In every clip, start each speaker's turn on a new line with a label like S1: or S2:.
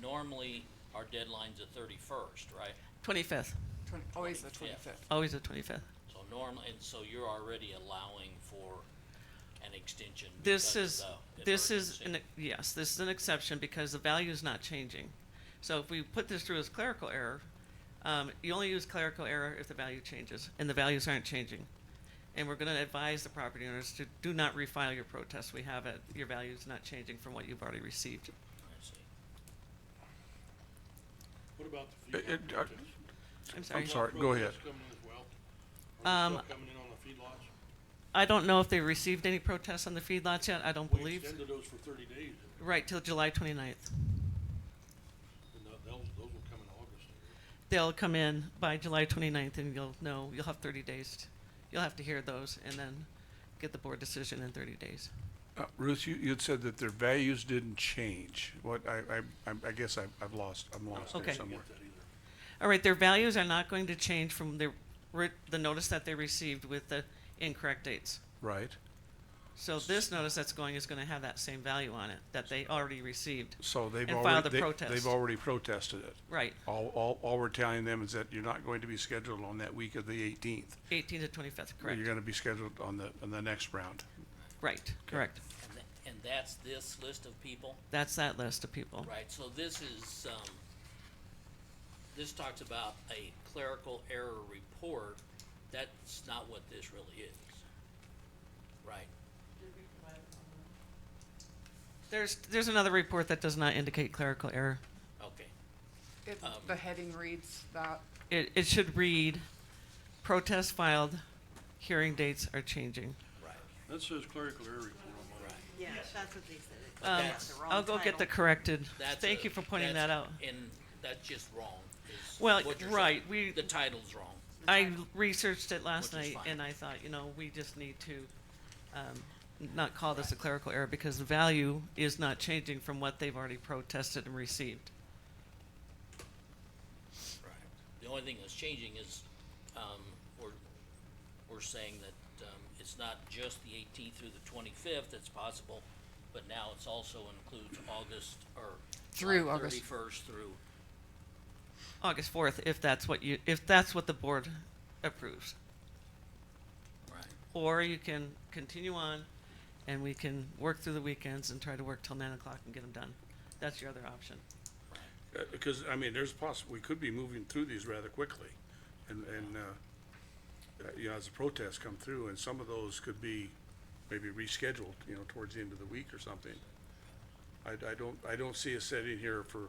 S1: normally our deadline's the thirty-first, right?
S2: Twenty-fifth,
S3: Twen- always oh, the
S1: Yeah. Uh,
S3: twenty-fifth.
S2: always the twenty-fifth.
S1: So normally, and so you're already allowing for an extension
S2: This
S1: because
S2: is,
S1: of the
S2: this is, an e-
S1: emergency.
S2: yes, this is an exception because the value is not changing. So if we put this through as clerical error, um, you only use clerical error if the value changes, and the values aren't changing. And we're gonna advise the property owners to do not refile your protest. We have it, your value's not changing from what you've already received.
S1: I see.
S4: What about the
S5: It- it-
S4: feedlot
S5: uh,
S4: protests?
S2: I'm sorry.
S5: I'm sorry, go ahead.
S4: Feedlot protests coming in as well? Are
S2: Um,
S4: they still coming in on the feedlots?
S2: I don't know if they received any protests on the feedlots yet. I don't
S4: We
S2: believe,
S4: extended those for thirty days, and
S2: right, till July twenty-ninth.
S4: tho- those, those will come in August.
S2: they'll come in by July 29th and you'll know, you'll have 30 days. t- You'll have to hear those and then get the board decision in 30 days.
S5: Uh, Ruth, you, you'd said that their values didn't change. What, I, I, I'm- I guess I, I've lost, I'm lost
S2: Okay.
S5: there
S4: I didn't
S5: somewhere.
S4: get that either.
S2: All right, their values are not going to change from the, ri- the notice that they received with the incorrect dates.
S5: Right.
S2: So this notice that's going is going to have that same value on it that they already received.
S5: So they've
S2: And filed
S5: already,
S2: a
S5: they-
S2: protest.
S5: they've already protested it.
S2: Right,
S5: All, all, all we're telling them is that you're not going to be scheduled on that week of the eighteenth.
S2: 18 to 25th, correct.
S5: You're gonna be scheduled on the, on the next round.
S2: Right, correct.
S1: And tha- and that's this list of people?
S2: That's that list of people.
S1: Right, so this is, um, this talks about a clerical error report. That's not what this really is. Right,
S2: There's, there's another report that does not indicate clerical error.
S1: okay.
S3: It,
S1: Um,
S3: the heading reads that,
S2: It, it should read, protest filed, hearing dates are changing.
S1: Right.
S4: That says clerical error report on mine.
S6: Yeah, that's what they said. It's
S1: But
S2: Um,
S6: got
S1: that's-
S6: the wrong
S2: I'll go get the
S6: title.
S2: corrected.
S1: That's
S2: Thank
S1: a-
S2: you for pointing
S1: that's-
S2: that out.
S1: And that's just wrong. is
S2: Well,
S1: what you're
S2: right,
S1: saying.
S2: we-
S1: The title's wrong.
S2: I researched it last
S1: Which is
S2: night
S1: fine.
S2: and I thought, you know, we just need to, um, not call this a clerical error because the value is not changing from what they've already protested and received.
S1: Right. The only thing that's changing is, um, we're, we're saying that, um, it's not just the eighteenth through the twenty-fifth that's possible, but now it's also includes August or.
S3: Through August.
S1: Thirty-first through,
S2: August fourth, if that's what you, if that's what the board approves.
S1: right,
S2: Or you can continue on and we can work through the weekends and try to work till nine o'clock and get them done. That's your other option.
S5: Uh, because, I mean, there's poss, we could be moving through these rather quickly. And, and, uh, uh, you know, as the protests come through, and some of those could be maybe rescheduled, you know, towards the end of the week or something. I, I don't, I don't see us sitting here for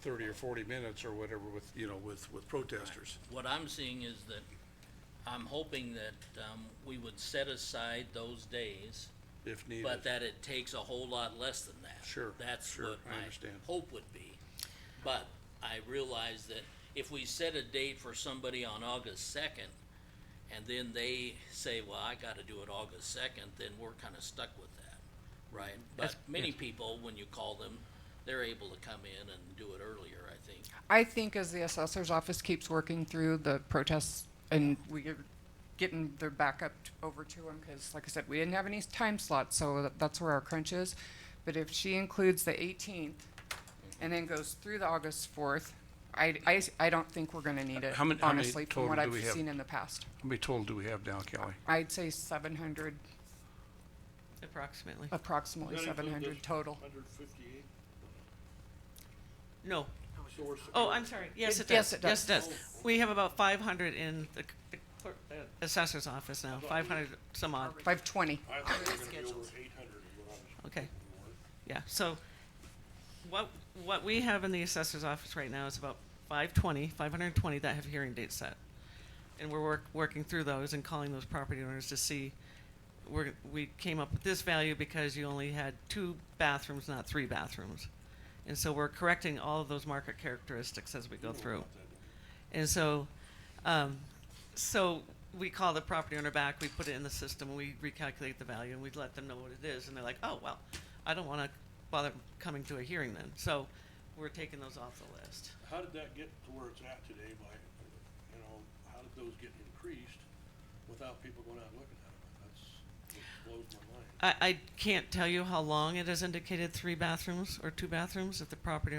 S5: thirty or forty minutes or whatever with, you know, with, with protesters.
S1: What I'm seeing is that, I'm hoping that, um, we would set aside those days,
S5: if needed.
S1: but that it takes a whole lot less than that.
S5: Sure,
S1: That's
S5: sure,
S1: what
S5: I
S1: my
S5: understand.
S1: hope would be. But I realize that if we set a date for somebody on August second, and then they say, well, I gotta do it August second, then we're kinda stuck with that, right? But
S2: That's-
S1: many people, when you call them, they're able to come in and do it earlier, I think.
S3: I think as the assessor's office keeps working through the protests and we're getting their backup t- over to them, because like I said, we didn't have any time slots, so tha- that's where our crunch is. But if she includes the eighteenth and then goes through the August fourth, I, I s- I don't think we're gonna need it,
S5: How many- how many
S3: honestly, from
S5: total
S3: what
S5: do
S3: I've
S5: we have?
S3: seen in the past.
S5: How many total do we have now, Kelly?
S3: I'd say seven hundred,
S2: Approximately.
S3: Uh, approximately
S4: Does that
S3: seven
S4: include
S3: hundred
S4: this
S3: total.
S4: 158?
S2: No,
S4: So we're s-
S2: Oh, I'm sorry. Yes, it
S3: It-
S2: does.
S3: yes, it does.
S2: We have about five hundred in the, c- the clerk- the assessor's office now, five hundred some odd.
S3: Five twenty.
S4: I thought we were gonna be over eight hundred is what I was.
S2: Okay.
S4: thinking.
S2: Yeah, so what, what we have in the assessor's office right now is about 520, 520 that have hearing dates set. And we're work, working through those and calling those property owners to see, we're, we came up with this value because you only had two bathrooms, not three bathrooms. And so we're correcting all of those market characteristics as we go through. And so, um, so we call the property owner back, we put it in the system, we recalculate the value, and we let them know what it is, and they're like, oh, well, I don't wanna bother coming to a hearing then, so we're taking those off the list.
S4: How did that get to where it's at today by, you know, how did those get increased without people going out and looking at them? That's what blows my mind.
S2: I, I can't tell you how long it has indicated three bathrooms or two bathrooms, if the property